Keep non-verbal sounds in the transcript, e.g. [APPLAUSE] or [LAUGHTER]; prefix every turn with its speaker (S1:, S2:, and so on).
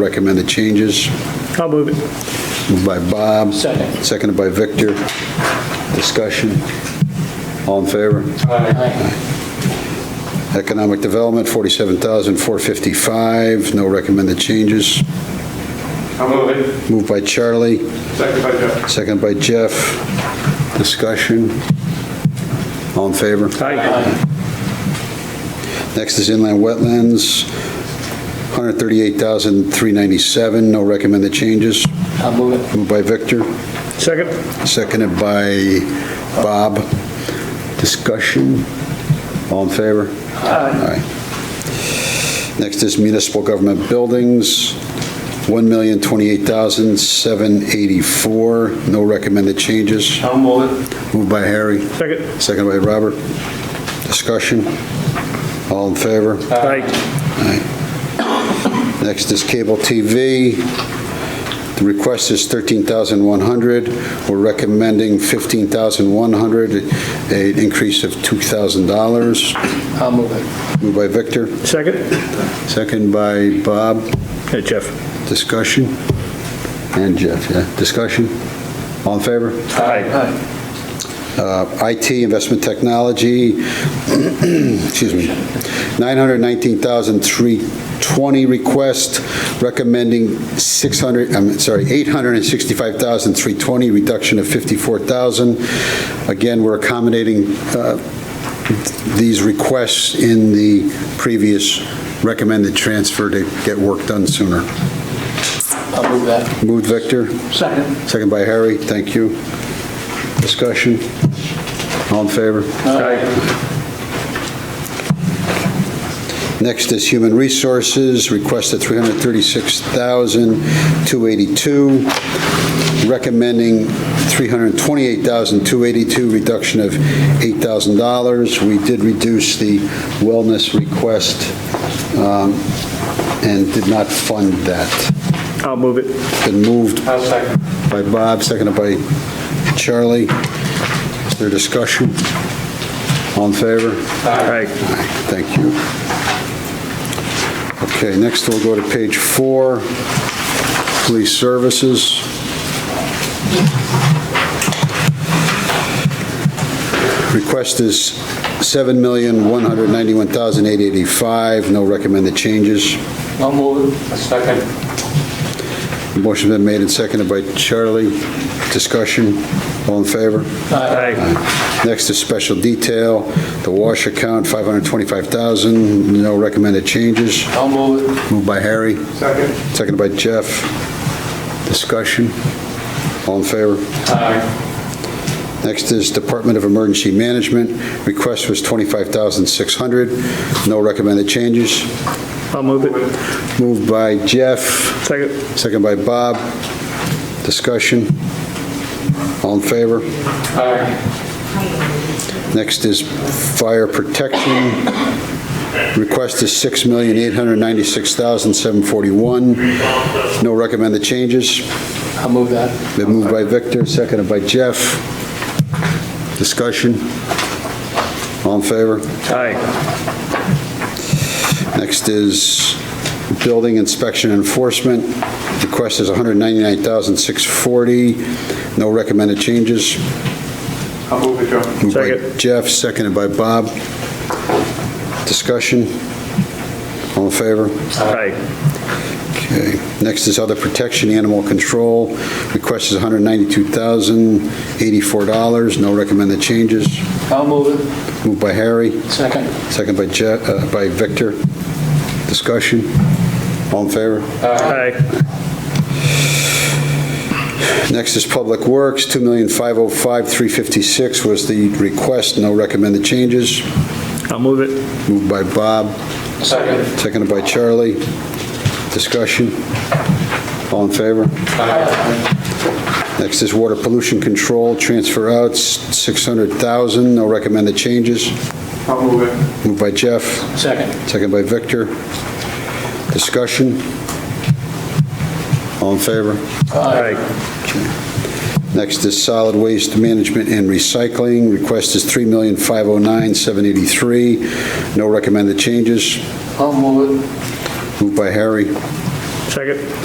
S1: Recommended changes,
S2: I'll move it.
S1: moved by Bob.
S2: Second.
S1: Seconded by Victor. Discussion. All in favor? Economic Development, 47,455, no recommended changes.
S3: I'll move it.
S1: Moved by Charlie,
S3: Second by Jeff.
S1: seconded by Jeff. Discussion. All in favor?
S2: Aye.
S1: Next is inland wetlands, 138,397, no recommended changes.
S4: I'll move it.
S1: Moved by Victor,
S2: Second?
S1: seconded by Bob. Discussion? All in favor? Aye. Next is municipal government buildings, 1,028,784, no recommended changes.
S3: I'll move it.
S1: Moved by Harry,
S2: Second?
S1: seconded by Robert. Discussion? All in favor?
S2: Aye.
S1: Next is cable TV. The request is 13,100. We're recommending 15,100, an increase of $2,000.
S4: I'll move it.
S1: Moved by Victor,
S2: Second?
S1: second by Bob.
S2: Hey, Jeff?
S1: Discussion? And Jeff, yeah. Discussion? All in favor?
S2: Aye.
S4: Aye.
S1: Uh, IT, investment technology, [CLEARS THROAT] excuse me, 919,320 request, recommending 600, I'm sorry, 865,320, reduction of 54,000. Again, we're accommodating uh, these requests in the previous recommended transfer to get work done sooner.
S4: I'll move that.
S1: Moved, Victor?
S4: Second.
S1: Second by Harry, thank you. Discussion? All in favor?
S2: Aye.
S1: Next is Human Resources, requested 336,282, recommending 328,282, reduction of $8,000. We did reduce the wellness request um, and did not fund that.
S2: I'll move it.
S1: Been moved
S3: I'll second.
S1: by Bob, seconded by Charlie. Is there discussion? All in favor?
S2: Aye.
S1: Aye, Thank you. Okay, next we'll go to page four, police services. Request is 7191885 no recommended changes.
S4: I'll move it.
S3: Second.
S1: Motion's been made and seconded by Charlie. Discussion, all in favor?
S2: Aye.
S1: Next is special detail, the wash account, 525,000, no recommended changes.
S4: I'll move it.
S1: Moved by Harry,
S3: Second.
S1: seconded by Jeff. Discussion? All in favor?
S3: Aye.
S1: Next is Department of Emergency Management. Request was 25,600, no recommended changes.
S2: I'll move it.
S1: Moved by Jeff,
S2: Second?
S1: seconded by Bob. Discussion? All in favor?
S3: Aye.
S1: Next is fire protection. Request is $6,896,741. No recommended changes.
S4: I'll move that.
S1: Been moved by Victor, seconded by Jeff. Discussion? All in favor?
S2: Aye.
S1: Next is building inspection enforcement. Request is $199,640. No recommended changes.
S3: I'll move it, Joe.
S1: Moved by
S2: Second.
S1: Jeff, seconded by Bob. Discussion? All in favor?
S2: Aye.
S1: Okay. Next is other protection, animal control. Request is $192,084. No recommended changes.
S4: I'll move it.
S1: Moved by Harry,
S4: Second.
S1: second by Je- uh, by Victor. Discussion? All in favor?
S2: Aye.
S1: Next is Public Works, $2,505,356 was the request. No recommended changes.
S2: I'll move it.
S1: Moved by Bob,
S3: Second.
S1: Seconded by Charlie. Discussion? All in favor?
S3: Aye.
S1: Next is water pollution control, transfer out, 600,000, no recommended changes.
S3: I'll move it.
S1: Moved by Jeff,
S4: Second.
S1: seconded by Victor. Discussion? All in favor?
S2: Aye.
S1: Next is solid waste management and recycling. Request is 3509783 no recommended changes.
S4: I'll move it.
S1: Moved by Harry,
S2: Second?